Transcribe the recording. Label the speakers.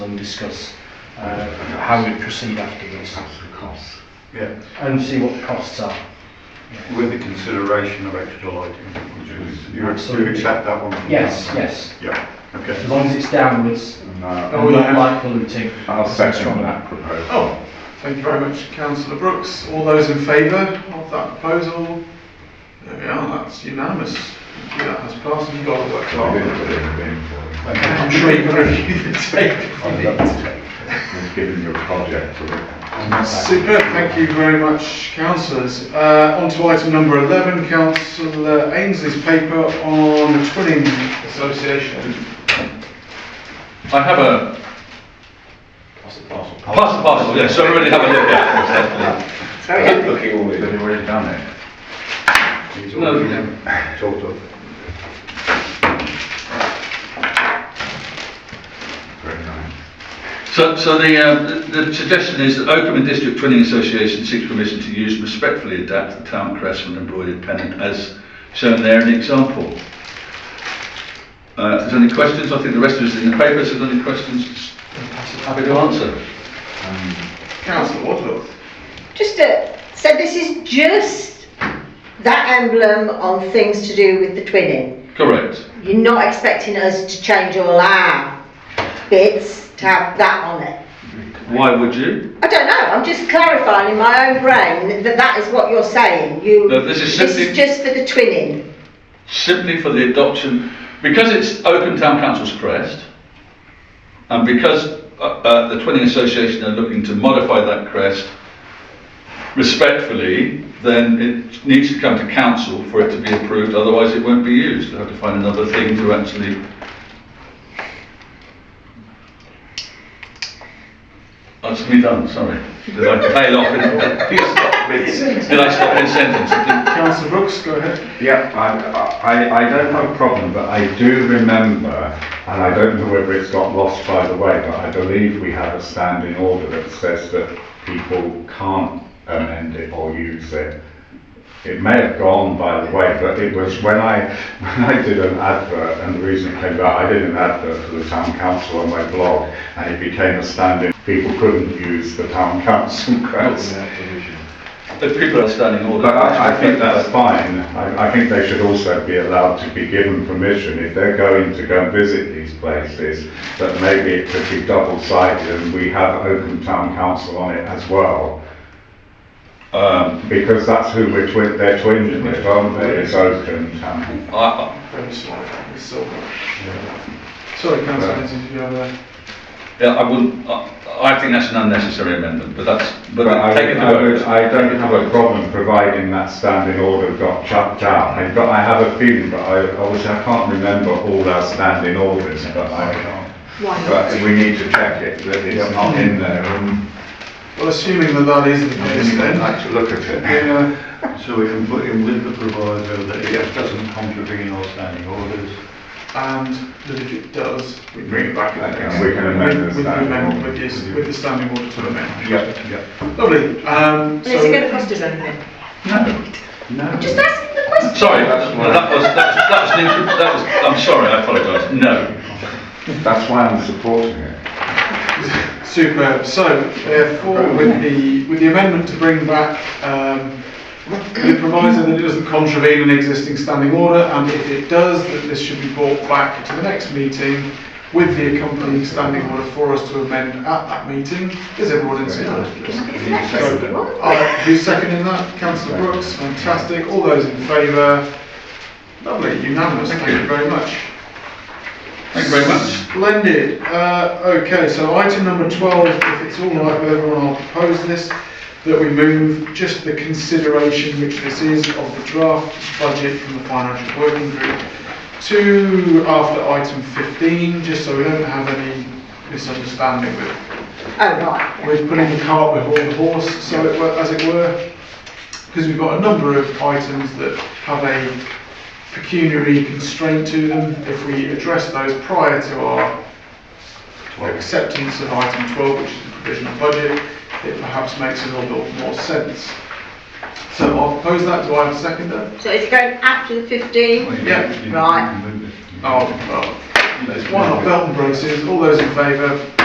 Speaker 1: and discuss uh, how we proceed after this
Speaker 2: Yeah,
Speaker 1: and see what the costs are.
Speaker 2: with the consideration of extra lighting, would you, you you
Speaker 1: Absolutely.
Speaker 2: accept that one? from
Speaker 1: Yes,
Speaker 2: council?
Speaker 1: yes,
Speaker 2: Yeah,
Speaker 1: as
Speaker 2: okay.
Speaker 1: long as it's downwards
Speaker 3: No,
Speaker 1: and not light polluting.
Speaker 3: I'll second
Speaker 1: Strong.
Speaker 3: that proposal.
Speaker 4: Oh, thank you very much, councillor Brooks. All those in favour of that proposal? There we are, that's unanimous. Thank you, That has passed and you've got to work
Speaker 3: I'll be
Speaker 4: hard.
Speaker 3: in for it, I'll be in for it.
Speaker 4: I'm sure you can review the tape.
Speaker 3: I've got to take it. We've given you a project for it.
Speaker 4: Super, thank you very much, councillors. Uh, on to item number 11, councillor Ainsley's paper on twinning association.
Speaker 5: I have a. Pass the parcel. Pass the parcel, yes, so everybody have a look at it.
Speaker 3: Looking all They've already done it.
Speaker 2: He's
Speaker 5: No,
Speaker 2: already
Speaker 5: we
Speaker 2: Talked of.
Speaker 3: Very nice.
Speaker 5: So, so the, um, the the suggestion is that Oakham and District Twinning Association seeks permission to use and respectfully adapt the town crest and embroidered pennant as shown there in the example. Uh, if there's any questions, I think the rest of us in the papers, if there's any questions, happy to answer.
Speaker 4: Councillor Waterloo.
Speaker 6: Just a, so this is just that emblem on things to do with the twinning.
Speaker 5: Correct.
Speaker 6: You're not expecting us to change all our bits to have that on it.
Speaker 5: Why would you?
Speaker 6: I don't know, I'm just clarifying in my own brain that that is what you're saying. You,
Speaker 5: No, this is simply-
Speaker 6: just for the twinning.
Speaker 5: simply for the adoption, because it's Oakham Town Council's crest, and because uh, uh, the Twinning Association are looking to modify that crest respectfully, then it needs to come to council for it to be approved, otherwise it won't be used. They'll have to find another thing to actually. That's Oh, me done, sorry. Did I tail off in, did I stop in sentence? Did-
Speaker 4: Councillor Brooks, go ahead.
Speaker 3: Yeah, I, I, I don't have a problem, but I do remember, and I don't know whether it's got lost by the way, but I believe we have a standing order that says that people can't amend it or use it. It may have gone by the way, but it was when I, when I did an advert, and the reason it came about, I did an advert for the town council on my blog, and it became a standing, people couldn't use the town council crest.
Speaker 5: If people are standing order.
Speaker 3: But I, I think that's fine. I, I think they should also be allowed to be given permission if they're going to go and visit these places, that maybe it could be double-sided and we have Oakham Town Council on it as well. Um, because that's who we're twin, they're twinned with, aren't they? It's Oakham Town.
Speaker 5: I-
Speaker 4: Very sorry, Miss Silver. Sorry, councillor Ainsley, did you have a...
Speaker 5: Yeah, I wouldn't, I, I think that's an unnecessary amendment, but that's, but
Speaker 3: But I,
Speaker 5: take it to
Speaker 3: I would-
Speaker 5: vote.
Speaker 3: I
Speaker 5: Take
Speaker 3: don't
Speaker 5: it
Speaker 3: have
Speaker 5: to
Speaker 3: a
Speaker 5: vote.
Speaker 3: problem providing that standing order got chucked out. I've got, I have a feeling, but I, obviously I can't remember all our standing orders, but I,
Speaker 6: Why not?
Speaker 3: But we need to check it, that it's not in there, and
Speaker 4: Well, assuming that that is the case
Speaker 2: I'd
Speaker 4: then.
Speaker 2: like to look at it. Yeah, so we can put in with the proviso that it doesn't contravene our standing orders.
Speaker 4: and that if it does, we bring it back. at the next-
Speaker 3: And we can amend the
Speaker 4: with- with
Speaker 3: standing
Speaker 4: amendment,
Speaker 3: order.
Speaker 4: With the, with the standing order to amend.
Speaker 2: Yep, yep.
Speaker 4: Lovely, um,
Speaker 6: Is it going to
Speaker 4: so,
Speaker 6: cost us anything?
Speaker 5: No,
Speaker 2: No.
Speaker 6: Just asking the question.
Speaker 5: sorry, that was, that was, that was, an inter- that was, I'm sorry, I apologise, no.
Speaker 3: that's why I'm supporting it.
Speaker 4: superb, so therefore with the, with the amendment to bring back, um, the proviso that it doesn't contravene an existing standing order and if it does, that this should be brought back to the next meeting with the accompanying standing order for us to amend at that meeting. Is everyone in support? Alright, Uh, who's seconding that? Councillor Brooks, fantastic. All those in favour? Lovely, unanimous, thank you very much.
Speaker 5: Thank you very much.
Speaker 4: Splendid. Uh, okay, so item number 12, if it's all right with everyone, I'll propose this, that we move just the consideration, which this is, of the draft budget from the Financial Working Group to after item 15, just so we don't have any misunderstanding with
Speaker 6: Oh, right.
Speaker 4: we're putting the cart before the horse, so it were, as it were, because we've got a number of items that have a pecuniary constraint to them. If we address those prior to our acceptance of item 12, which is the provisional budget, it perhaps makes a little bit more sense. So I'll propose that. Do I have a seconder?
Speaker 6: So it's going after the 15?
Speaker 4: Yeah.
Speaker 6: Right.
Speaker 4: Oh, well, there's one of Belton Brooks's. All those in favour?